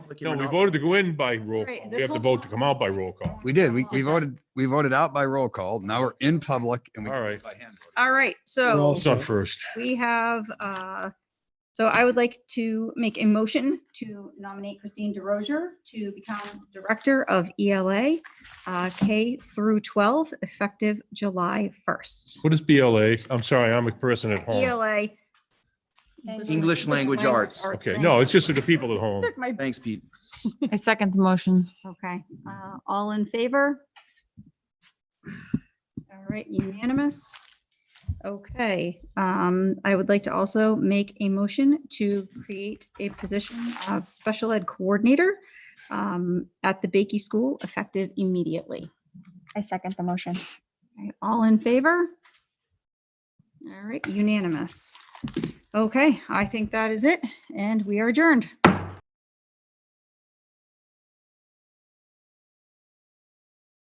Like you No, were we not- voted to go in by roll right, call. this We have to whole- vote to come out by roll call. We did. Oh We, we voted, we voted out by roll call. Now we're in public and we. All right. All right, so It's not first. we have, uh, so I would like to make a motion to nominate Christine DeRozier to become Director of ELA uh, K through 12, effective July E 1st. What is BLA? I'm sorry, I'm a person at home. ELA. English Language Arts. Okay, no, it's just for the people at home. Took my- Thanks, Pete. I second the motion. Okay, uh, all in favor? All right, unanimous. Okay, um, I would like to also make a motion to create a position of special ed coordinator um, at the Bakey School effective immediately. I second the motion. Okay, All in favor? All right, unanimous. Okay, I think that is it, and we are adjourned.